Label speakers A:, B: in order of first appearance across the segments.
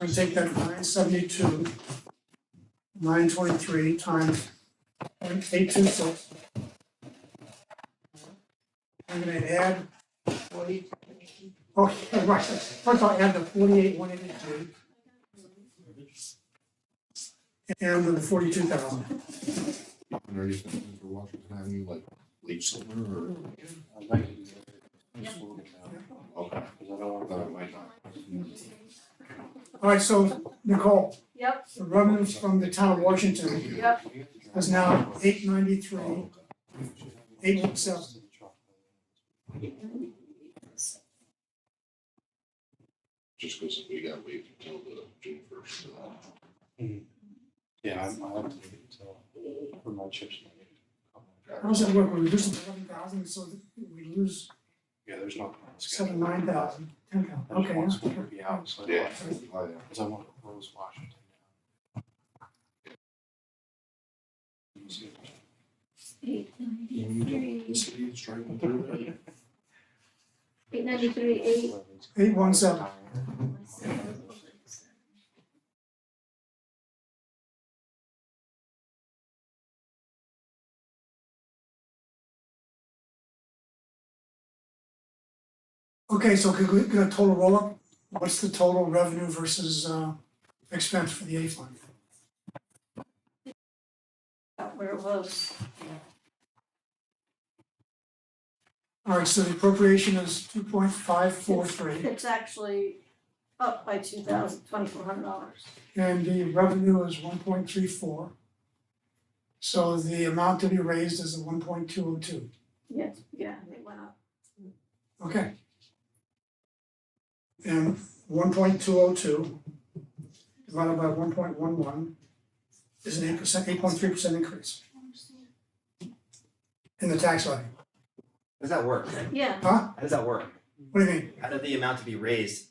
A: and take that nine seventy-two, nine twenty-three times point eight two six. I'm gonna add forty, oh, right, first I'll add the forty-eight, one eighty-two. And then the forty-two thousand.
B: And are you thinking for Washington Avenue, like late summer or? Okay, then it might not.
A: All right, so Nicole,
C: Yep,
A: the revenues from the town of Washington
C: yep,
A: is now eight ninety-three, eight one seven.
B: Just because we got waived until the June first. uh,
D: Yeah, I'm, I'll have to wait until, for my chips.
A: How does that work? We reduce it to eleven thousand, so that we lose
D: Yeah, there's no.
A: seven, nine thousand, ten thousand, okay.
D: I
A: that's
D: just want
A: okay.
D: to be out, so. I don't
B: Yeah.
D: want to-
B: uh,
D: Cause I want to close Washington. down.
E: Eight
B: The
E: ninety-three,
B: city is driving through there.
E: eight ninety-three, eight.
A: Eight one seven. Okay, so could we get a total roll-up? What's the total revenue versus uh expense for the A fund?
C: About where it was.
A: All right, so the appropriation is two point five four three,
C: It's actually up by two thousand, twenty-four hundred dollars.
A: and the revenue is one point three four. So the amount to be raised is the one point two oh two,
C: Yes, yeah, it went up.
A: okay? And one point two oh two divided by one point one one is an eight percent, eight point three percent increase in the tax levy,
F: How does that work?
C: Yeah,
A: huh?
F: How does that work?
A: What do you mean?
F: How did the amount to be raised?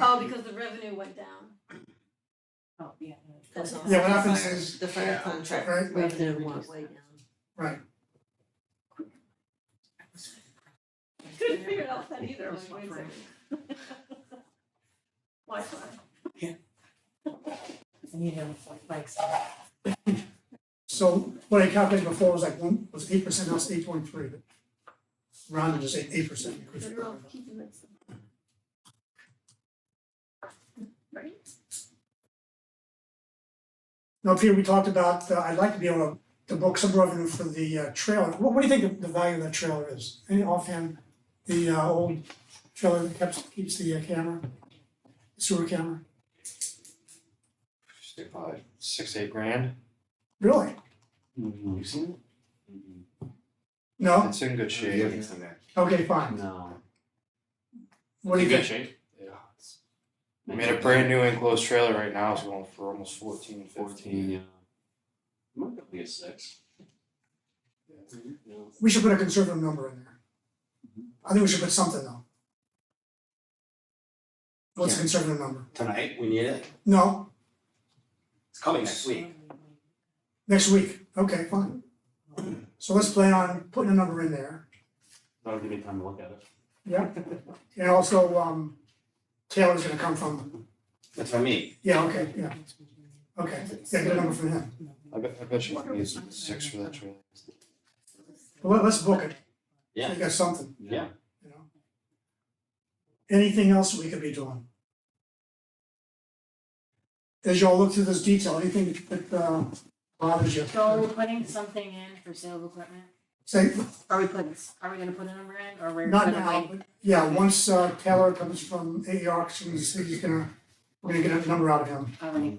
C: oh, because the revenue went down.
G: Oh, yeah.
C: That's all.
A: Yeah, what happens is,
G: The fire contract.
A: right,
G: We have to walk way down.
A: right,
C: Couldn't figure out that either, I'm like, wait a second. Wi-Fi.
G: And you know, like, like,
A: so what I calculated before was like one, was eight percent, now it's eight point three, but rounded is eight, eight percent increase.
C: They're all keeping it simple. Right?
A: Now, Peter, we talked about, uh, I'd like to be able to book some revenue for the uh, trailer, what, what do you think the, the value of that trailer is? Any offhand, the uh, old trailer that keeps, keeps the uh, camera, sewer camera,
D: Say probably six, eight grand.
A: really?
D: You seen it?
A: No,
D: It's in good
F: You
D: shape.
F: haven't seen that.
A: okay, fine,
D: No.
A: what do you think?
D: shape. Yeah. it's- I mean, a brand new enclosed trailer right now is going for almost fourteen, fifteen.
H: Might be a six.
A: We should put a conservative number in there. I think we should put something though. What's a conservative number?
F: Tonight, we need it.
A: No,
F: It's coming next week.
A: next week, okay, fine. So let's plan on putting a number in there,
H: That'll give me time to look at it.
A: and also, um, Taylor's gonna come from,
F: That's what I mean.
A: yeah, okay, yeah, okay, yeah, get a number from him.
D: I bet, I bet you can get six for that trailer.
A: But let- let's book it,
F: Yeah.
A: we got something,
F: Yeah.
A: you know? Anything else we could be doing? As y'all look through this detail, anything that, uh, bothers you?
G: So are we putting something in for sale of equipment?
A: Say,
G: Are we putting, are we gonna put a number in or we're
A: Not
G: gonna
A: now,
G: wait?
A: but yeah, once uh, Taylor comes from E AER, he's, he's gonna, we're gonna get a number out of him.
G: All right.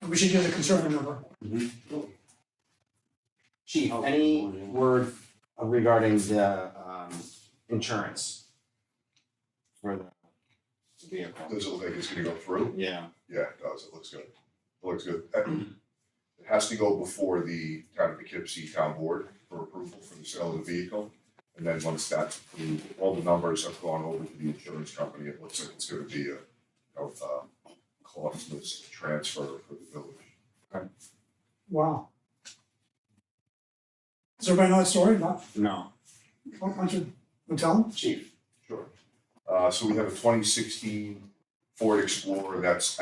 A: And we should get a conservative number.
F: Chief, any word regarding the um insurance? For the vehicle?
B: Does it look like it's gonna go through?
F: Yeah.
B: Yeah, it does. It looks good. It looks good. Uh, It has to go before the town of Poughkeepsie Town Board for approval for the sale of the vehicle. And then once that's approved, all the numbers have gone over to the insurance company. It looks like it's gonna be a, of, uh, costless transfer for the village.
A: Wow. Does everybody know that story? Not,
F: No.
A: why don't you, wanna tell them?
F: Chief?
B: Sure. Uh, so we have a twenty sixteen Ford Explorer that's